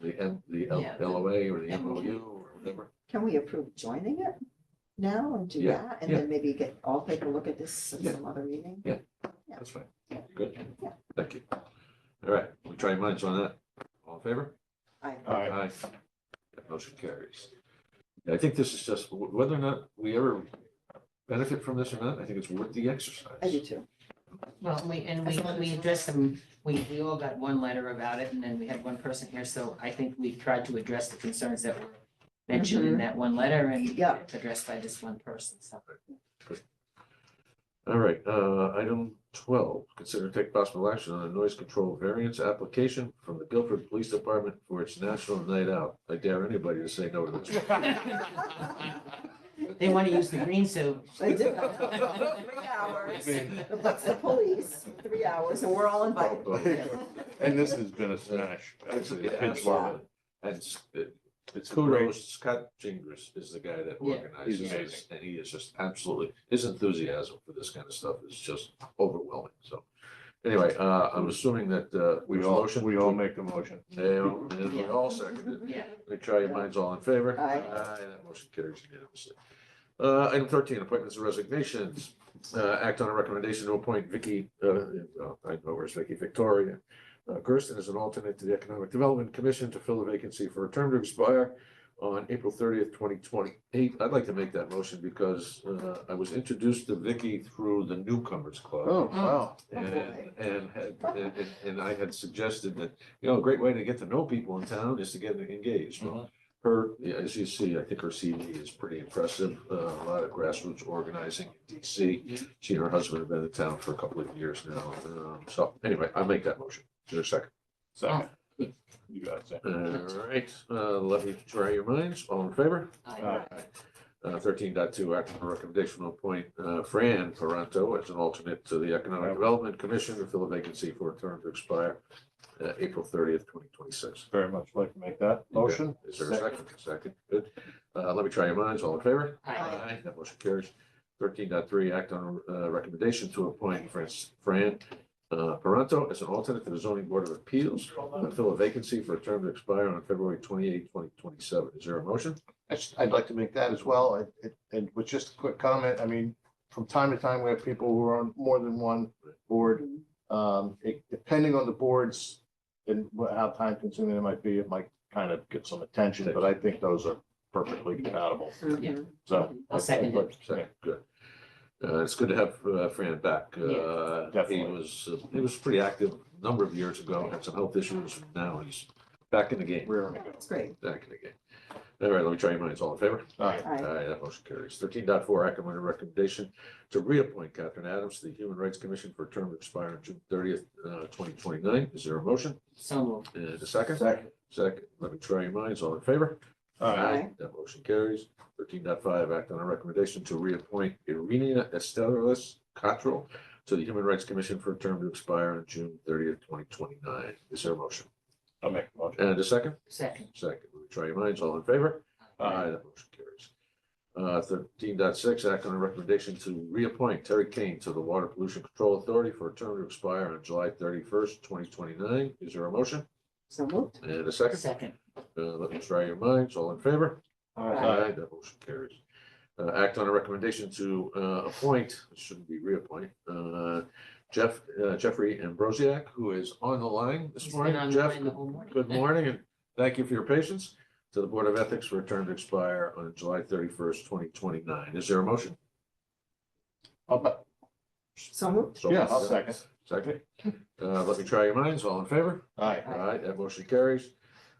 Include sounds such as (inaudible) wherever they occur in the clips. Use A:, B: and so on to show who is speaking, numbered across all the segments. A: the, N- the L-
B: Yeah.
A: LOA or the
B: And-
A: MOU or whatever.
C: Can we approve joining it now and do
A: Yeah,
C: that? And
A: yeah.
C: then maybe get, all take a look at this at
A: Yeah.
C: some other meeting? Yeah.
A: That's fine. Good.
C: Yeah.
A: Thank you. All right, we'll try your minds on that. All in favor?
C: I,
D: Aye.
A: Aye. That motion carries. I think this is just, wh- whether or not we ever benefit from this or not, I think it's worth the exercise.
C: I do too.
B: Well, and we, and
C: As
B: we,
C: long as
B: we
C: it's-
B: addressed them, we, we all got one letter about it, and then we had one person here, so I think we've tried to address the concerns that were mentioned in that one letter and
C: Mm-hmm. Yeah.
B: addressed by this one person, so.
A: All right, uh, item twelve, consider to take possible action on a noise control variance application from the Guilford Police Department for its national night out. I dare anybody to say no to this.
B: (laughs) They want to use the green so
C: I do.
B: (laughs)
C: Three hours. That's the police, three hours, and we're all
A: Uh,
C: invited.
A: (laughs)
D: And this has been a smash. Actually, the kids love it.
A: And it's- it-
D: It's great.
A: kudos, Scott Gingras is the guy that
B: Yeah.
A: organizes
D: He's
A: this, and he is just absolutely, his enthusiasm for this kind of stuff is just overwhelming, so. Anyway, uh, I'm assuming that, uh.
D: We
A: there's a
D: all,
A: motion
D: we
A: to-
D: all make a motion.
A: Yeah, and we all seconded.
B: Yeah.
A: Let me try your minds all in favor.
C: Aye.
A: that motion carries unanimously. Uh, item thirteen, appointments and resignations. Uh, act on a recommendation to appoint Vicky, uh, oh, I know where's Vicky Victoria. Uh, Gersten as an alternate to the Economic Development Commission to fill a vacancy for a term to expire on April thirtieth, twenty twenty-eight. I'd like to make that motion because, uh, I was introduced to Vicky through the newcomers club.
D: Oh, wow.
A: And,
C: Okay.
A: and, had- and, and- and I had suggested that, you know, a great way to get to know people in town is to get engaged. Well, Her, yeah, as you see, I think her CV is pretty impressive, uh, a lot of grassroots organizing in DC. She and her husband have been in town for a couple of years now, um, so anyway, I make that motion, is there a second?
D: Second. You got it.
A: All right, uh, let me try your minds, all in favor?
B: I
A: Uh, thirteen dot two, act on a recommendation to appoint, uh, Fran Ferranto as an alternate to the Economic Development Commission to fill a vacancy for a term to expire, uh, April thirtieth, twenty twenty-six.
D: Very much like to make that motion.
A: Is there a second? Second, good. Uh, let me try your minds. All in favor?
B: Aye.
A: That motion carries. Thirteen dot three, act on a uh, recommendation to appoint Francis, Fran, uh, Ferranto as an alternate to the zoning board of appeals to fill a vacancy for a term to expire on February twenty-eighth, twenty twenty-seven. Is there a motion?
D: That's- I'd like to make that as well, and- and- and with just a quick comment, I mean, from time to time, we have people who are on more than one board. Um, it- depending on the boards and wha- how time consuming it might be, it might kind of get some attention, but I think those are perfectly compatible,
C: Mhm.
D: so.
B: I'll second it.
A: Second, good. Uh, it's good to have uh, Fran back. Uh, he
D: definitely.
A: was, uh, he was pretty active a number of years ago, had some health issues. Now he's back in the game.
D: We're, all
C: That's great.
A: Back in the game. All right, let me try your minds. All in favor?
D: right,
C: Aye.
A: Aye, that motion carries. Thirteen dot four, act on a recommendation to reappoint Catherine Adams to the Human Rights Commission for a term to expire on June thirtieth, uh, twenty twenty-nine. Is there a motion?
B: So moved.
A: And a Uh, second?
D: second.
A: Second, let me try your minds. All in favor?
D: All right,
C: Aye.
A: That motion carries. Thirteen point five. act on a recommendation to reappoint Irina Estelis Cottrell to the Human Rights Commission for a term to expire on June thirtieth, twenty twenty-nine. Is there a motion?
D: I'll make the motion.
A: And a second?
B: Second.
A: Second. Let me try your minds. All in favor?
D: Aye.
A: That motion carries. Uh, thirteen point six. act on a recommendation to reappoint Terry Kane to the Water Pollution Control Authority for a term to expire on July thirty-first, twenty twenty-nine. Is there a motion?
C: So moved.
A: And a second?
B: Second.
A: Uh, let me try your minds. All in favor?
D: All right.
A: Aye, that motion carries. Uh, act on a recommendation to, uh, appoint, it shouldn't be reappoint, uh, Jeff, uh, Jeffrey Ambrosiak, who is on the line this
B: He's been
A: morning.
B: on the
A: Jeff,
B: line the whole morning.
A: good morning and thank you for your patience. To the Board of Ethics for a term to expire on July thirty-first, twenty twenty-nine. Is there a motion?
D: I'll ba-
C: So moved.
A: So-
D: Yeah, I'll second.
A: Second. Uh, let me try your minds. All in favor?
D: All right,
B: Aye.
A: Aye, that motion carries.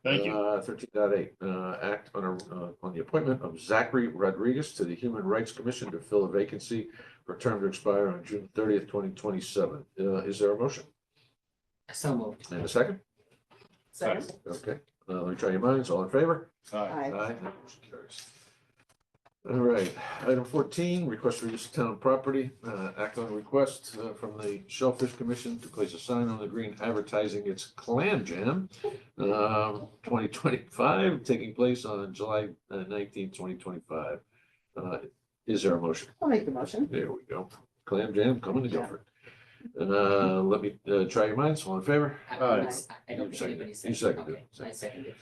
D: thank you.
A: Thirteen dot eight, uh, act on a, uh, on the appointment of Zachary Rodriguez to the Human Rights Commission to fill a vacancy for a term to expire on June thirtieth, twenty twenty-seven. Uh, is there a motion?
B: So moved.
A: And a second?
C: Second.
A: Okay, uh, let me try your minds. All in favor?
D: All right,
C: Aye.
A: that motion carries. All right, item fourteen, request for use of town property, uh, act on a request uh, from the Shellfish Commission to place a sign on the green advertising its clam jam. Um, twenty twenty-five, taking place on July nineteenth, twenty twenty-five. Uh, is there a motion?
C: I'll make the motion.
A: There we go. Clam jam coming to Guilford. Uh, let me, uh, try your minds, all in favor?
B: I-
D: Aye.
B: I I don't
A: You
B: think
A: seconded
B: anybody
A: it. You
B: seconded.
A: seconded
B: Okay, I seconded.